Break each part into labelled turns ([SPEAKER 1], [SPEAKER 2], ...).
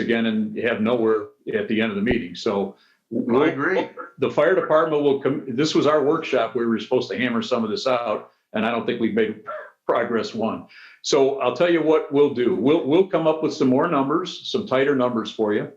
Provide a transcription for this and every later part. [SPEAKER 1] again and have nowhere at the end of the meeting. So. we'll-
[SPEAKER 2] I agree.
[SPEAKER 1] The fire department will come, this was our workshop. We were supposed to hammer some of this out and I don't think we've made progress one. So I'll tell you what we'll do. We'll, we'll come up with some more numbers, some tighter numbers for you.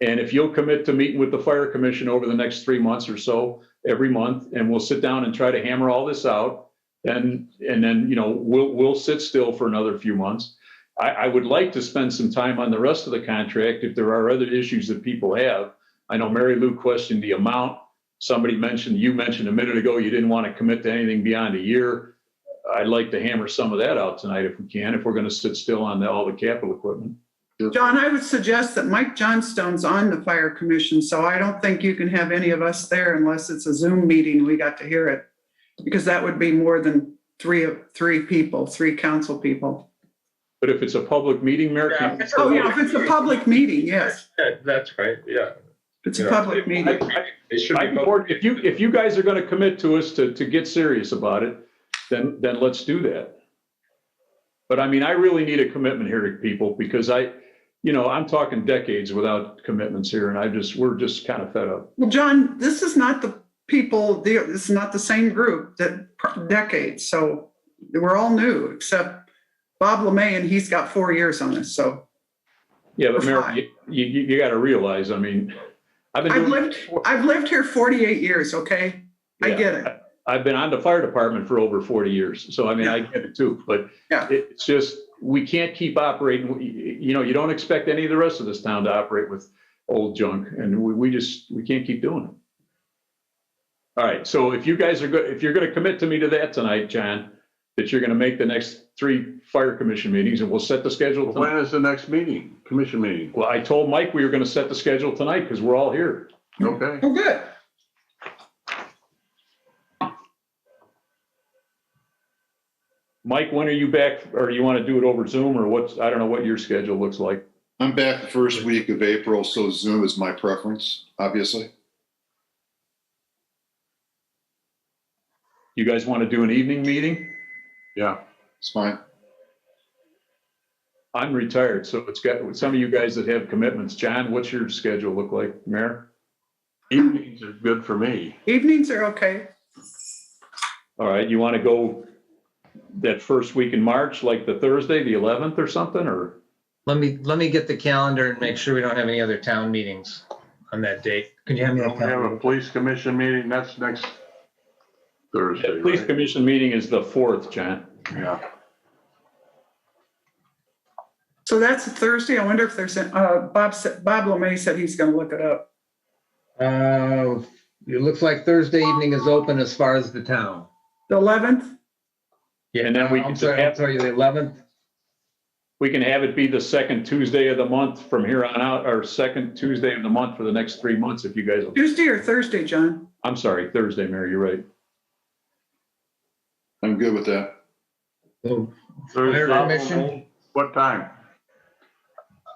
[SPEAKER 1] And if you'll commit to meeting with the fire commission over the next three months or so, every month, and we'll sit down and try to hammer all this out. And, and then, you know, we'll, we'll sit still for another few months. I, I would like to spend some time on the rest of the contract if there are other issues that people have. I know Mary Lou questioned the amount. Somebody mentioned, you mentioned a minute ago, you didn't want to commit to anything beyond a year. I'd like to hammer some of that out tonight if we can, if we're going to sit still on the- all the capital equipment.
[SPEAKER 3] John, I would suggest that Mike Johnstone's on the fire commission, so I don't think you can have any of us there unless it's a Zoom meeting. We got to hear it. Because that would be more than three of, three people, three council people.
[SPEAKER 1] But if it's a public meeting, Mayor,
[SPEAKER 4] Yeah.
[SPEAKER 1] can-
[SPEAKER 3] Oh, yeah, if it's a public meeting, yes.
[SPEAKER 4] Yeah, That's right, yeah.
[SPEAKER 3] It's a public meeting.
[SPEAKER 4] It should
[SPEAKER 1] I
[SPEAKER 4] be
[SPEAKER 1] can
[SPEAKER 4] both.
[SPEAKER 1] coordinate- if you, if you guys are going to commit to us to, to get serious about it, then, then let's do that. But I mean, I really need a commitment here, people, because I, you know, I'm talking decades without commitments here and I just, we're just kind of fed up.
[SPEAKER 3] Well, John, this is not the people, the- this is not the same group that decades, so we're all new, except Bob Lemay, and he's got four years on us, so.
[SPEAKER 1] Yeah, but
[SPEAKER 3] We're
[SPEAKER 1] Mayor,
[SPEAKER 3] fine.
[SPEAKER 1] you, you, you got to realize, I mean, I've been
[SPEAKER 3] I've
[SPEAKER 1] doing,
[SPEAKER 3] lived, I've lived here 48 years, okay? I
[SPEAKER 1] Yeah.
[SPEAKER 3] get it.
[SPEAKER 1] I've been on the fire department for over 40 years. So I mean, I get it too, but
[SPEAKER 3] Yeah.
[SPEAKER 1] it's just, we can't keep operating. We- You know, you don't expect any of the rest of this town to operate with old junk and we, we just, we can't keep doing it. All right. So if you guys are good, if you're going to commit to me to that tonight, John, that you're going to make the next three fire commission meetings and we'll set the schedule. tonight.
[SPEAKER 2] When is the next meeting, commission meeting?
[SPEAKER 1] Well, I told Mike we were going to set the schedule tonight because we're all here.
[SPEAKER 2] Okay,
[SPEAKER 3] Well, Oh, good.
[SPEAKER 1] Mike, when are you back? Or you want to do it over Zoom or what's, I don't know what your schedule looks like.
[SPEAKER 5] I'm back the first week of April, so Zoom is my preference, obviously.
[SPEAKER 1] You guys want to do an evening meeting?
[SPEAKER 2] yeah.
[SPEAKER 5] It's fine.
[SPEAKER 1] I'm retired, so it's got, some of you guys that have commitments, John, what's your schedule look like, Mayor?
[SPEAKER 2] Evenings are good for me.
[SPEAKER 3] Evenings are okay.
[SPEAKER 1] All right, you want to go that first week in March, like the Thursday, the 11th or something, or?
[SPEAKER 6] Let me, let me get the calendar and make sure we don't have any other town meetings on that date. Can you have
[SPEAKER 2] We
[SPEAKER 6] me
[SPEAKER 2] have
[SPEAKER 6] that
[SPEAKER 2] a
[SPEAKER 6] calendar?
[SPEAKER 2] police commission meeting, that's next Thursday,
[SPEAKER 1] The Police
[SPEAKER 2] right?
[SPEAKER 1] Commission meeting is the 4th, John.
[SPEAKER 2] Yeah,
[SPEAKER 3] So that's a Thursday. I wonder if there's, an- uh, Bob, said- Bob Lemay said he's going to look it up.
[SPEAKER 6] Uh, It looks like Thursday evening is open as far as the town.
[SPEAKER 3] The 11th?
[SPEAKER 6] Yeah,
[SPEAKER 1] And then we
[SPEAKER 6] I'm
[SPEAKER 1] can
[SPEAKER 6] sorry,
[SPEAKER 1] have-
[SPEAKER 6] I'm sorry, the 11th.
[SPEAKER 1] We can have it be the second Tuesday of the month from here on out, or second Tuesday of the month for the next three months, if you guys,
[SPEAKER 3] Tuesday or Thursday, John?
[SPEAKER 1] I'm sorry, Thursday, Mayor, you're right.
[SPEAKER 5] I'm good with that.
[SPEAKER 6] So Fire
[SPEAKER 2] Thursday.
[SPEAKER 6] commission?
[SPEAKER 2] What time?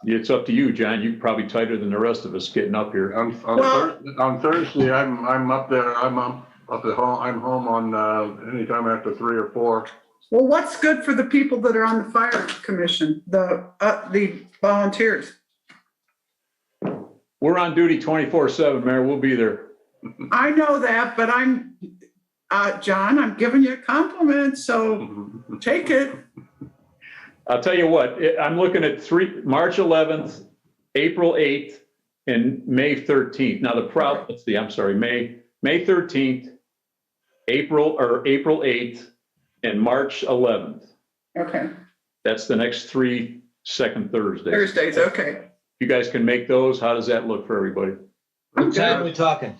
[SPEAKER 1] It's up to you, John, you're probably tighter than the rest of us getting up here.
[SPEAKER 2] On, on
[SPEAKER 3] Well-
[SPEAKER 2] Thur- on Thursday, I'm, I'm up there, I'm up, up at home, I'm home on, uh, anytime after three or four.
[SPEAKER 3] Well, what's good for the people that are on the fire commission, the, uh, the volunteers?
[SPEAKER 1] We're on duty 24/7, Mayor, we'll be there.
[SPEAKER 3] I know that, but I'm, uh, John, I'm giving you a compliment, so take it.
[SPEAKER 1] I'll tell you what, it- I'm looking at three, March 11th, April 8th, and May 13th. Now the problem, let's see, I'm sorry, May, May 13th, April, or April 8th, and March 11th.
[SPEAKER 3] Okay,
[SPEAKER 1] That's the next three second Thursdays. If
[SPEAKER 3] Thursdays, okay.
[SPEAKER 1] You guys can make those, how does that look for everybody?
[SPEAKER 6] What time are we talking?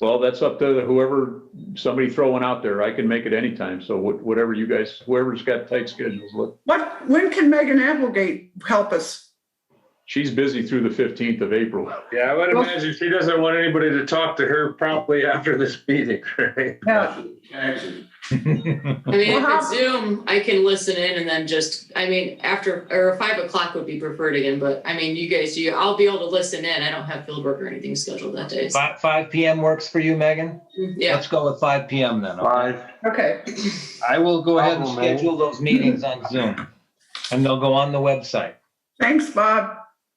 [SPEAKER 1] Well, that's up to whoever, somebody throwing out there, I can make it anytime, so wh- whatever you guys, whoever's got tight schedules, look.
[SPEAKER 3] What, when can Megan Applegate help us?
[SPEAKER 1] She's busy through the 15th of April.
[SPEAKER 4] Yeah, I would
[SPEAKER 3] Well-
[SPEAKER 4] imagine she doesn't want anybody to talk to her promptly after this meeting, right?
[SPEAKER 3] Yeah.
[SPEAKER 7] I mean, if
[SPEAKER 3] Well,
[SPEAKER 7] it's Zoom, I can listen in and then just, I mean, after, or five o'clock would be preferred again, but I mean, you guys, you, I'll be able to listen in. I don't have field work or anything scheduled that day. so-
[SPEAKER 6] Fi- 5 PM works for you, Megan?
[SPEAKER 7] Yeah,
[SPEAKER 6] Let's go with 5 PM then. okay?
[SPEAKER 2] Five,
[SPEAKER 3] Okay,
[SPEAKER 6] I will go ahead and
[SPEAKER 2] Problem, man.
[SPEAKER 6] schedule those meetings on Zoom. And they'll go on the website.
[SPEAKER 3] thanks, Bob.